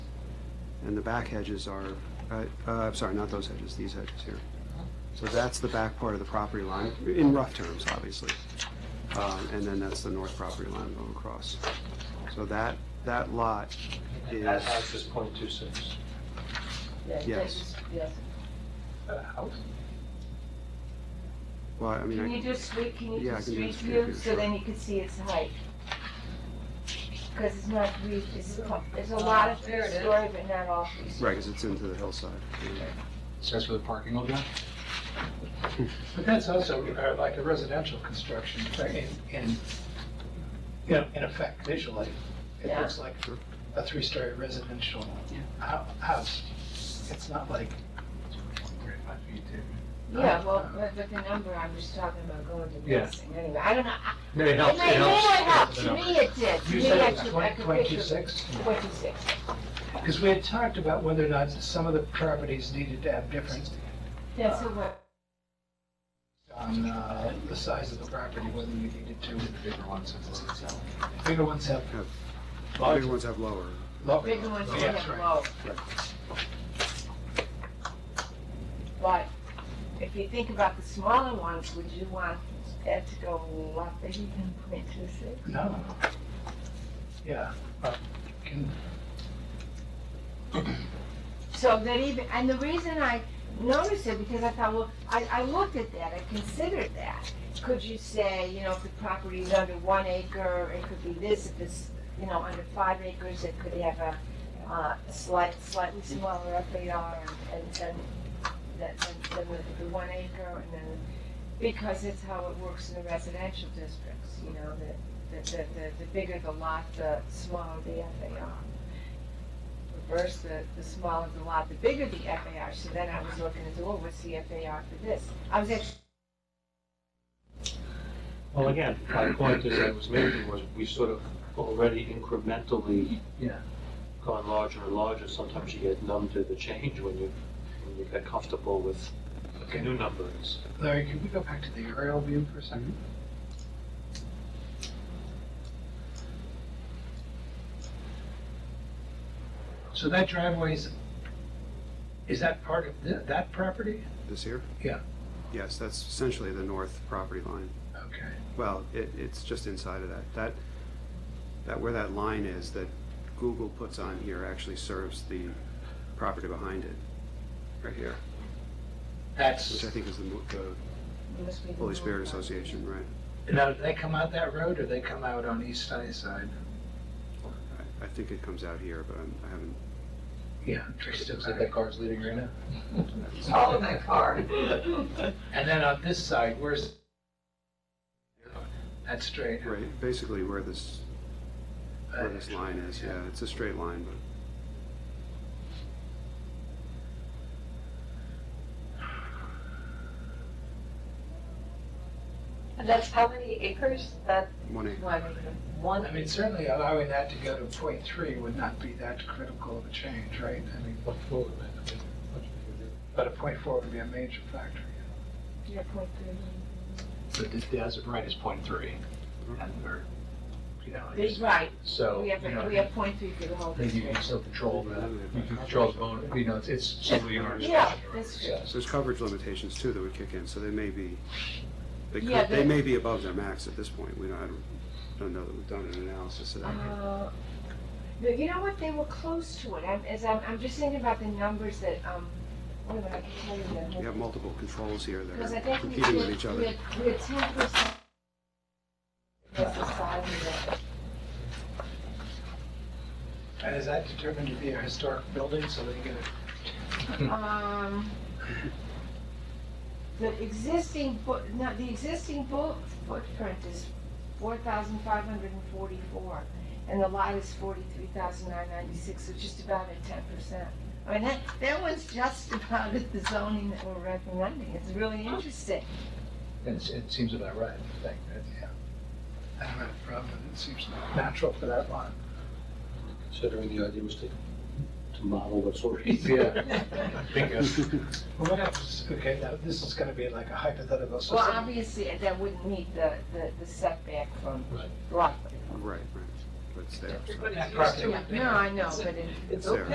and the back hedges are, uh, uh, sorry, not those hedges, these hedges here. So that's the back part of the property line, in rough terms, obviously. Um, And then that's the north property line going across. So that, that lot is... That house is point two six. Yeah, Yes. just- Yes. That house? Well, I mean, Can you I- do street, can you Yeah, I do can do street street view view, so sure. then you can see its height? Because it's not, re- it's, co- it's a lot of Oh, There it is. story, but not all. right, because it's into the hillside. So that's where the parking will go? But that's also uh, like a residential construction in, in, you know, in effect visually. It Yeah. looks like a three-story residential hou- house. It's not like, Yeah, well, but but the number, I'm just talking about going to Yeah. this thing anyway, I don't know. I- No, it It helps, it may, may not help, helps. to me it did, to you me said I it's could, I twenty, could twenty-two picture. six? Twenty-six. Because we had talked about whether or not some of the properties needed to have different, Yeah, so what, on uh, the size of the property, whether you needed to, Bigger ones, I believe. bigger ones have The bigger ones have lower. lower. bigger ones are That's right. low. But if you think about the smaller ones, would you want that to go a lot bigger than point two six? No. Yeah. uh, Can So that even, and the reason I noticed it, because I thought, well, I, I looked at that, I considered that. Could you say, you know, if the property is under one acre, it could be this, if it's, you know, under five acres, it could have a, uh, slight, slightly smaller FAR and, and then, then with the one acre and then, because it's how it works in the residential districts, you know, that, the, the, the bigger the lot, the smaller the FAR reverse the, the smaller the lot, the bigger the FAR, so then I was looking at, oh, what's the FAR for this? I was actually, Well, again, my point is I was making was we sort of already incrementally Yeah. gone larger and larger. Sometimes you get numb to the change when you, when you get comfortable with the new numbers. Larry, can we go back to the aerial view for a second? So that driveway is, is that part of thi- that property? This here? Yeah. Yes, that's essentially the north property line. Okay. Well, it, it's just inside of that. That, that, where that line is that Google puts on here actually serves the property behind it, right here, which That's, I think is the mo- the it must be the Holy Spirit north side. Association, right? now, do they come out that road or they come out on East Sunnyside? I- I think it comes out here, but I'm- I haven't, Yeah. Looks like that car's leaving right now. Oh, my car. And then on this side, where's? That's straight. Uh, right, basically where this, where this line is, yeah, it's a straight line, but And that's how many acres? That one acre. One, one? I mean, certainly allowing that to go to point three would not be that critical of a change, right? I mean, but a point four would be a major factor. yeah, point three. So the, the as of right is point three. Mm-hmm. And, or, you know, it's- Big right, so, we you have, know, we have point three for the whole I think you can district. still control the, you can control the bone, you know, it's, it's solely your. Yeah, that's true. Yeah. So There's coverage limitations too that would kick in, so they may be, they Yeah, could, they they- may be above their max at this point. We don't, I don't- don't know that we've done an analysis of that. Uh, No, you know what, they were close to it, I'm, as I'm, I'm just thinking about the numbers that, um, wait a minute, I can tell you the We have multiple controls here Because I that are think we competing with each did, we other. had, we had ten percent. That's the size of And is that determined to be a historic building, so they get a it. Um, the existing foot, no, the existing foot, footprint is four thousand five hundred and forty-four, and the lot is forty-three thousand nine ninety-six, so just about at ten percent. I mean, that, that one's just about at the zoning that we're recommending, it's really interesting. And it's- it seems about right, I think, right? I don't have a problem, it seems natural for that lot. Considering the idea was to, to model what's already Yeah. Bingo. Well, what happens, okay, now this is gonna be like a hypothetical Well, system. obviously, that wouldn't meet the, the the setback from Rockland. Right, right, but it's there. so- Everybody's That used property. to it. Yeah, no, I know, but it. It's There. okay.